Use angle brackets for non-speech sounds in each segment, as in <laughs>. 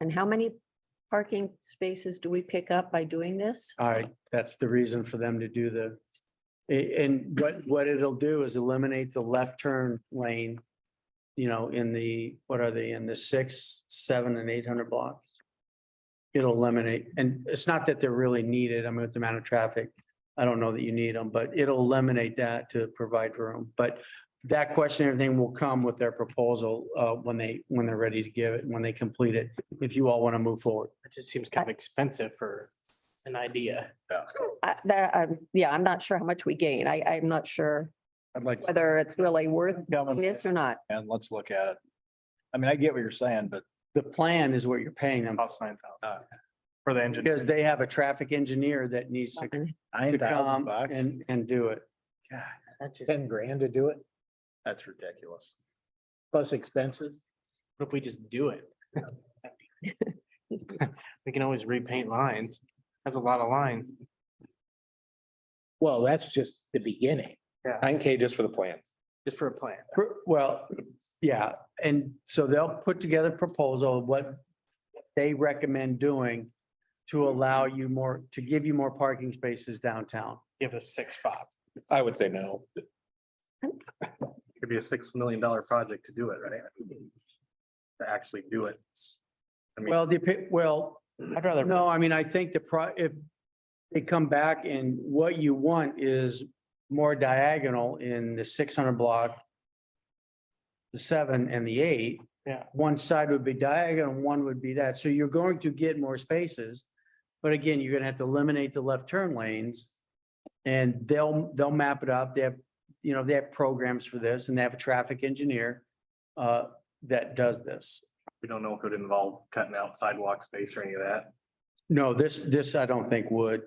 And how many parking spaces do we pick up by doing this? I, that's the reason for them to do the, a- and what, what it'll do is eliminate the left turn lane. You know, in the, what are they, in the six, seven and eight hundred blocks? It'll eliminate, and it's not that they're really needed, I mean, with the amount of traffic, I don't know that you need them, but it'll eliminate that to provide room. But that question, everything will come with their proposal, uh, when they, when they're ready to give it, when they complete it, if you all want to move forward. It just seems kind of expensive for an idea. I that, um, yeah, I'm not sure how much we gain. I, I'm not sure I'd like. to whether it's really worth come and- this or not. And let's look at it. I mean, I get what you're saying, but The plan is what you're paying them. Cost nine thousand. For the engine. Because they have a traffic engineer that needs to nine to thousand come bucks, and, and do it. God, ten grand to do it, that's ridiculous. plus expenses. What if we just do it? <laughs> We can always repaint lines. That's a lot of lines. Well, that's just the beginning. Nine K just for the plan. Just for a plan. Well, yeah, and so they'll put together a proposal of what they recommend doing to allow you more, to give you more parking spaces downtown. Give us six spots. I would say no. Could be a six million dollar project to do it, right? To actually do it. I mean- Well, the, well, I'd rather. no, I mean, I think the pro, if they come back and what you want is more diagonal in the six hundred block, the seven and the eight, Yeah. one side would be diagonal, one would be that. So you're going to get more spaces. But again, you're gonna have to eliminate the left turn lanes. And they'll, they'll map it up. They have, you know, they have programs for this and they have a traffic engineer uh, that does this. We don't know if it would involve cutting out sidewalk space or any of that. No, this, this I don't think would.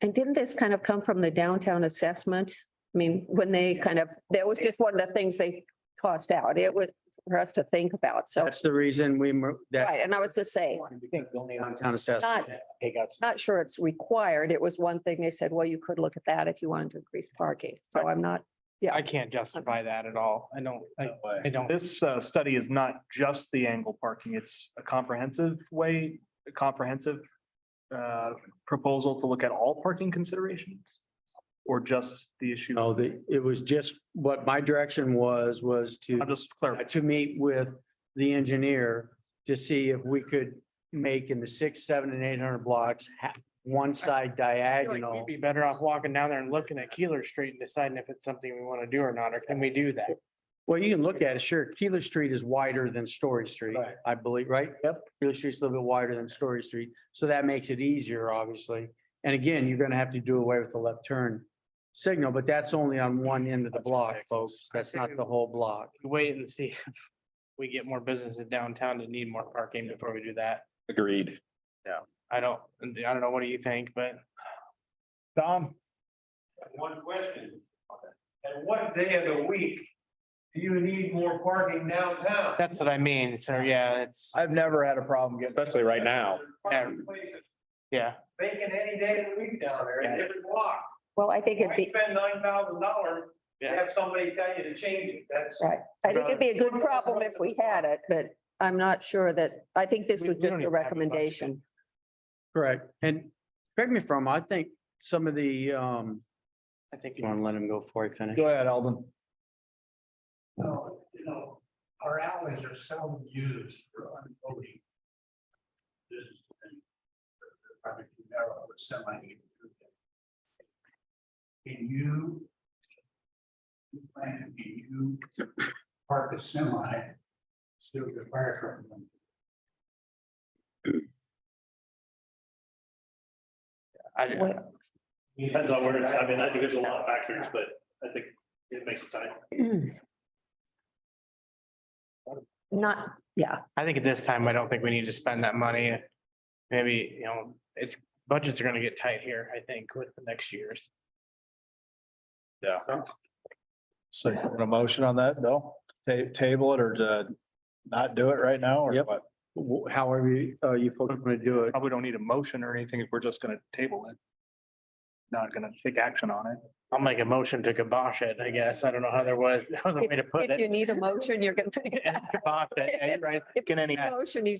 And didn't this kind of come from the downtown assessment? I mean, when they kind of, that was just one of the things they tossed out. It was for us to think about. So, That's the reason we, mo- that right. And I was to say, I think the only one downtown assessment. not, they got some not sure it's required. It was one thing they said, well, you could look at that if you wanted to increase parking. So I'm not, I can't justify that at all. I don't, I, No way. I don't. This uh, study is not just the angle parking. It's a comprehensive way, a comprehensive uh, proposal to look at all parking considerations or just the issue. No, the, it was just what my direction was, was to. I'm just clarifying. to meet with the engineer to see if we could make in the six, seven and eight hundred blocks, ha- one side I feel like diagonal. We'd be better off walking down there and looking at Keeler Street and deciding if it's something we want to do or not, or can we do that? Well, you can look at it, sure. Keeler Street is wider than Story Street, Right. I believe, right? Yep. Keeler Street's a little bit wider than Story Street, so that makes it easier, obviously. And again, you're gonna have to do away with the left turn signal, but that's only on one end of the That's block, ridiculous. folks. That's not the whole block. Wait and see. <laughs> if We get more businesses downtown that need more parking before we do that. Agreed. I don't, I don't know, what do you think, but Tom, One question. At what day of the week do you need more parking downtown? that's what I mean, so yeah, it's, I've never had a problem getting. Especially right now. Parking places yeah. Vacant any day of the week down there in every block. well, I think Why it'd be. spend nine thousand dollars to Yeah. have somebody tell you to change it? That's. Right. I think it'd be a good problem if we had it, but I'm not sure that, I think this We- was we just don't a even have a budget. recommendation. Correct. And correct me if I'm, wrong, I think some of the, um, I think you wanna let him go before I finish? Go ahead, Alden. No, you know, our alleys are seldom used for unloading. This is. Probably too narrow with somebody. Can you? you Plan, can you park a semi? So the fire truck. can- I didn't- Well- Depends on where it's, I mean, I think there's a lot of factors, but I think it makes sense. Not, yeah, I think at this time, I don't think we need to spend that money. Maybe, you know, it's, budgets are gonna get tight here, I think, with the next years. So you want a motion on that, Bill? Ta- table it or to not do it right now or Yep. what? wh- however you, uh, you folks want to do it. Probably don't need a motion or anything if we're just gonna table it. Not gonna take action on it. I'll make a motion to kibosh it, I guess. I don't know how there was, <laughs> other way to put if you it. need a motion, you're gonna. <laughs> Kibosh it, yeah, you're right. If you Can any- need a Motion, you